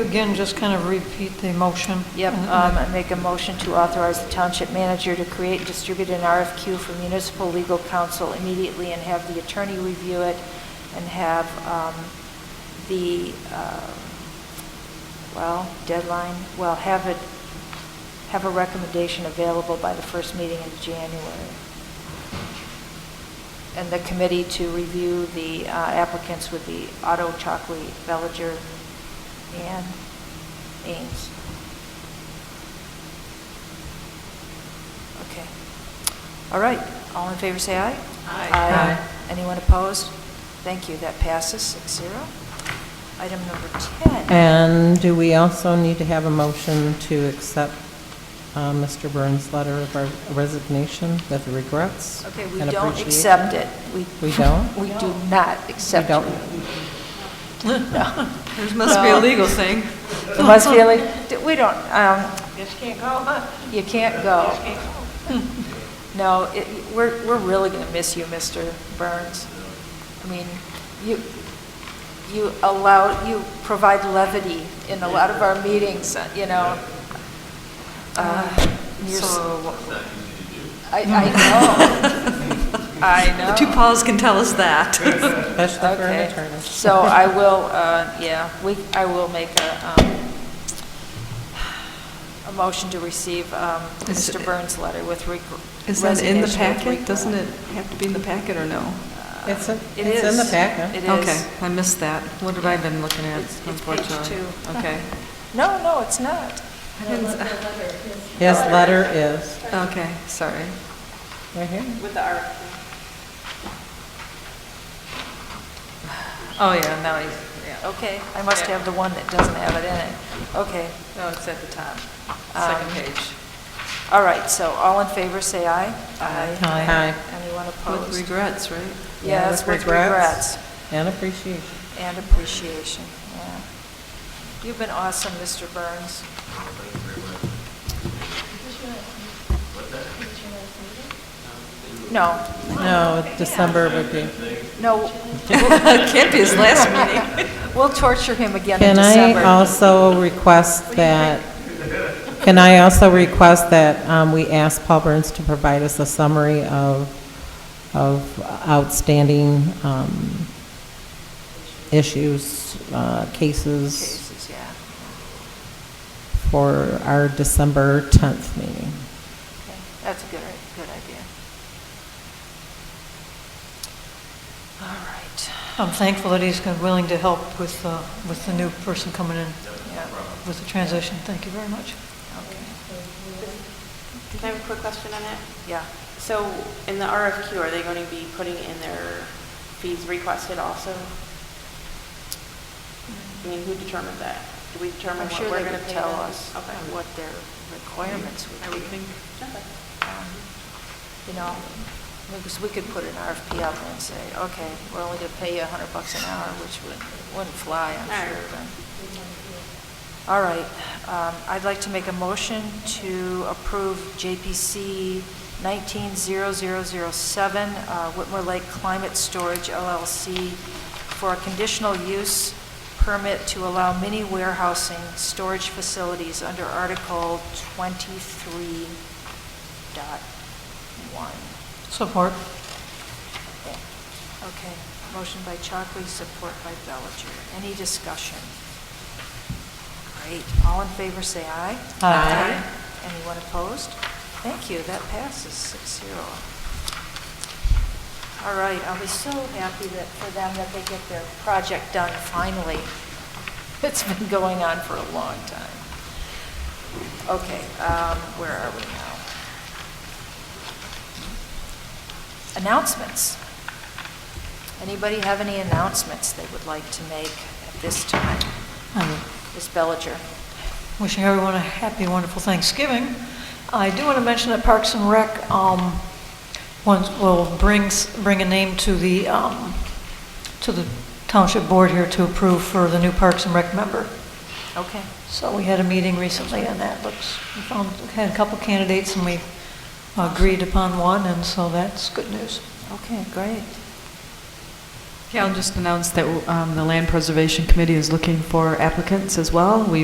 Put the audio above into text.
Again, just kind of repeat the motion. Yep, And- um, I make a motion to authorize the township manager to create and distribute an RFQ for municipal legal counsel immediately and have the attorney review it and have um, the, uh, well, deadline, well, have it, have a recommendation available by the first meeting in January. And the committee to review the uh, applicants would be Otto, Chalkley, Bellinger, and Ames. Okay. All right, all in favor, say aye. Aye. Anyone opposed? Thank you, that passes, six zero. Item number 10. And do we also need to have a motion to accept uh, Mr. Burns' letter of our resignation with regrets? Okay, we and don't appreciation? accept it. We don't? We do not We accept it. don't? There must be a legal thing. It must be illegal. D- We don't, um... You can't go, huh? You can't go. No, it, we're, we're really going to miss you, Mr. Burns. I mean, you, you allow, you provide levity in a lot of our meetings, uh, you know. Uh, you're s- So, I, I know. I know. the two Pauls can tell us that. Especially for an Okay. attorney. So I will, uh, yeah, we, I will make a, um, a motion to receive um, Is- Mr. Burns' letter with reg- resignation. Is that in the with packet? regret. Doesn't it have to be in the packet or no? It's in- It it's in is. the packet. It Okay, is. I missed that. What have I been looking at, It's- it's page unfortunately? two. Okay, No, no, it's not. His letter is, okay, sorry. right here. Oh, yeah, now he's, Okay, I must have the one that doesn't have it in it. Okay, no, it's at the top, Um, Second page. all right, so all in favor, say aye. Aye. Anyone With opposed? regrets, right? Yes, with regrets. And appreciation. And appreciation, yeah. You've been awesome, Mr. Burns. No, No, December would be. no, Can't be his last meeting. we'll torture him again in Can I December. also request that, can I also request that um, we ask Paul Burns to provide us a summary of, of outstanding um, issues, uh, cases Cases, yeah. for our December 10th meeting? Okay, That's a good, good idea. All right, I'm thankful that he's gonna- willing to help with, uh, with the new person coming in, yeah, with the transition. Thank you very much. okay, Can I have a quick question on that? yeah. So in the RFQ, are they going to be putting in their fees requested also? I mean, who determined that? Do we determine I'm what sure we're they going to would pay tell them? us Okay. what their requirements would be. I would think. Okay. um, you know, because we could put an RFP out there and say, okay, we're only gonna pay you a hundred bucks an hour, which would, wouldn't fly, I'm All right. sure, then. All right, um, I'd like to make a motion to approve JPC nineteen zero zero zero seven, uh, Whitmore Lake Climate Storage LLC for a conditional use permit to allow mini warehousing storage facilities under Article twenty-three dot one. Support. Okay, motion by Chockley, support by Bellinger. Any discussion? Great, all in favor, say aye. Aye. Anyone opposed? Thank you, that passes six zero. All right, I'll be so happy that, for them that they get their project done finally. It's been going on for a long time. Okay, um, where are we now? Announcements. Anybody have any announcements they would like to make at this time? Um, Ms. Bellinger? Wishing everyone a happy, wonderful Thanksgiving. I do want to mention that Parks and Rec um, once will bring, s- bring a name to the, um, to the township board here to approve for the new Parks and Rec member. Okay. So we had a meeting recently and that looks, we found, had a couple candidates and we agreed upon one and so that's good news. Okay, great. Okay, I'll just announce that um, the Land Preservation Committee is looking for applicants as well. We